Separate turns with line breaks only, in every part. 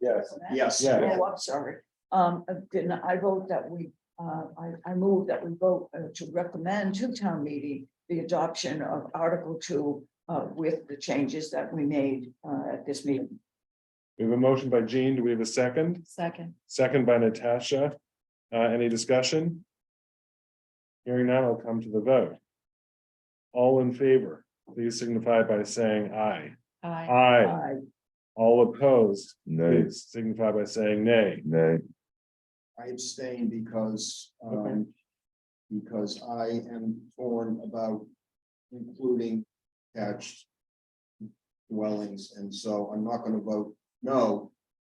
wasn't it?
Yes.
Yeah.
Oh, I'm sorry. Um, uh, didn't I vote that we, uh, I, I move that we vote uh, to recommend to town meeting the adoption of Article Two, uh, with the changes that we made, uh, at this meeting.
We have a motion by Jean. Do we have a second?
Second.
Second by Natasha. Uh, any discussion? Hearing none, I'll come to the vote. All in favor, please signify by saying aye.
Aye.
Aye.
I,
All opposed,
Nay,
please signify by saying nay.
nay,
I abstain because,
Okay.
um, because I am torn about including attached dwellings, and so I'm not gonna vote no,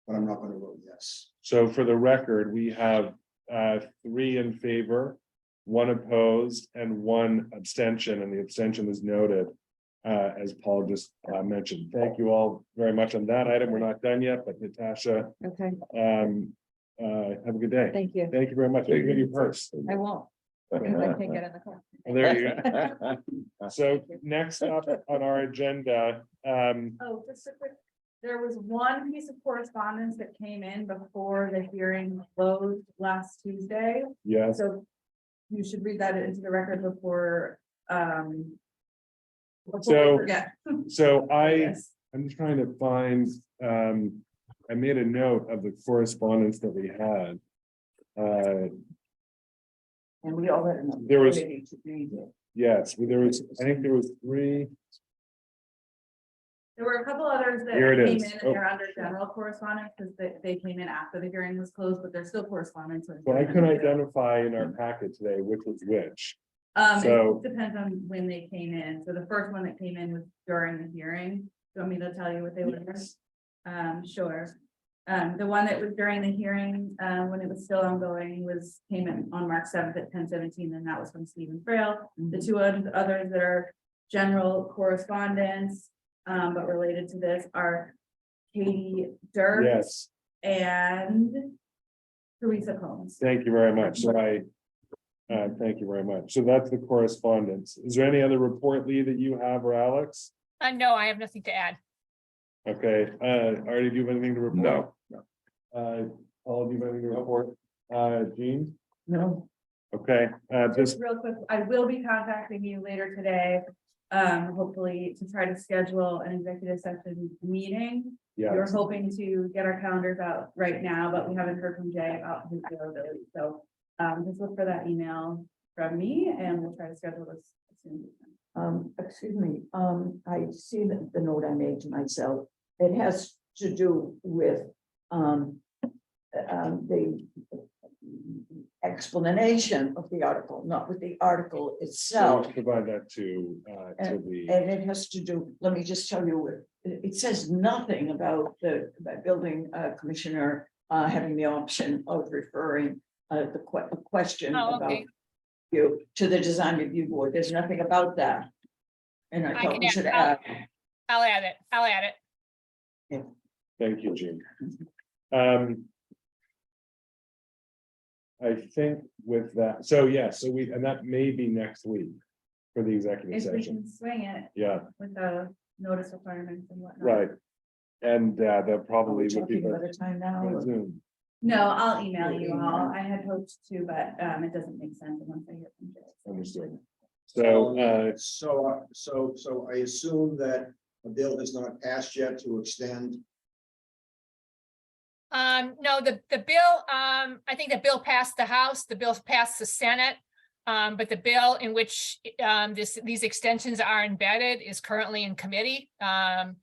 but I'm not gonna vote yes.
So for the record, we have uh three in favor, one opposed and one abstention, and the abstention is noted. Uh, as Paul just uh mentioned. Thank you all very much on that item. We're not done yet, but Natasha,
Okay,
um, uh, have a good day.
thank you.
Thank you very much.
Thank you.
Give you first.
I won't, because I can't get in the car.
There you go. So next up on our agenda, um,
Oh, just a quick, there was one piece of correspondence that came in before the hearing closed last Tuesday,
yes,
so. You should read that into the record before, um.
So-
Yeah.
so I I'm trying to find, um, I made a note of the correspondence that we had. Uh,
and we all had an opportunity
There was-
To read it.
yes, there was, I think there was three,
There were a couple others that
Here it
came in
is.
and
Oh.
they're under general correspondence, because they, they came in after the hearing was closed, but there's still correspondence. with-
but I couldn't identify in our packet today which was which.
Um,
So-
it depends on when they came in, so the first one that came in was during the hearing, do you want me to tell you what they were? Um, sure. Um, the one that was during the hearing, uh, when it was still ongoing was, came in on March seventh at ten seventeen, and that was from Stephen Frail. The two oth- others that are general correspondence, um, but related to this are Katie Dirk
Yes,
and Teresa Combs.
thank you very much. So I, uh, thank you very much. So that's the correspondence. Is there any other report, Lee, that you have or Alex?
Uh, no, I have nothing to add.
Okay, uh, Artie, do you have anything to report?
No.
Uh, Paul, do you have anything to report? Uh, Jean?
No,
Okay, uh, this
Just real quick, I will be contacting you later today, um, hopefully to try to schedule an executive session meeting. We
Yeah,
We're hoping to get our calendars out right now, but we haven't heard from Jay about his availability, so, um, just look for that email from me and we'll try to schedule this. as soon as we can.
Um, excuse me, um, I see the, the note I made to myself. It has to do with, um, um, the explanation of the article, not with the article
so
itself.
we should provide that to, uh, to the,
And it has to do, let me just tell you, it, it says nothing about the, about building, uh, commissioner, uh, having the option of referring, uh, the que- the question
Oh,
about
okay.
you to the design review board. There's nothing about that. And I
I
thought
can
we
add-
should
I'll-
add,
I'll add it. I'll add it.
thank you, Jean. Um. I think with that, so yeah, so we, and that may be next week for the executive
If we
session.
can swing it
Yeah,
with the notice requirements and whatnot.
right. And uh, that
are
probably
we
would be.
talking
by-
about a time now?
by
or-
Zoom.
No, I'll email you all, I had hoped to, but, um, it doesn't make sense once I hear from Jay. so.
Understood. So, uh,
So, uh, so, so I assume that a bill has not passed yet to extend,
Um, no, the, the bill, um, I think the bill passed the House, the bill passed the Senate. Um, but the bill in which, um, this, these extensions are embedded is currently in committee. Um,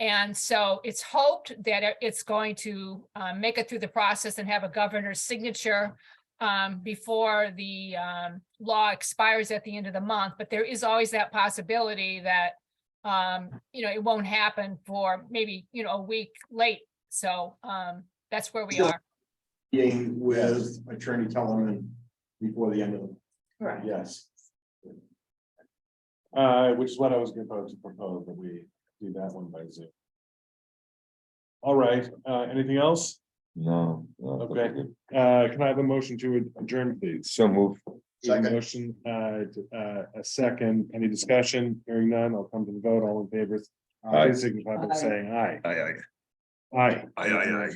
and so it's hoped that it- it's going to, uh, make it through the process and have a governor's signature um, before the, um, law expires at the end of the month. But there is always that possibility that, um, you know, it won't happen for maybe, you know, a week late. So um, that's where we
Yeah.
are.
being with Attorney Telemann before the end of the,
Correct.
yes. Uh, which is what I was going to propose, that we do that one by Zoom. All right, uh, anything else?
no. no, that's
Okay.
good.
Uh, can I have a motion to adjourn, please?
So move,
A
Second.
Motion, uh, d- uh, a second, any discussion, hearing none, I'll come to the vote, all in favor.
Aye.
Please signify by
Aye.
saying aye.
aye, aye,
Aye.
aye, aye, aye.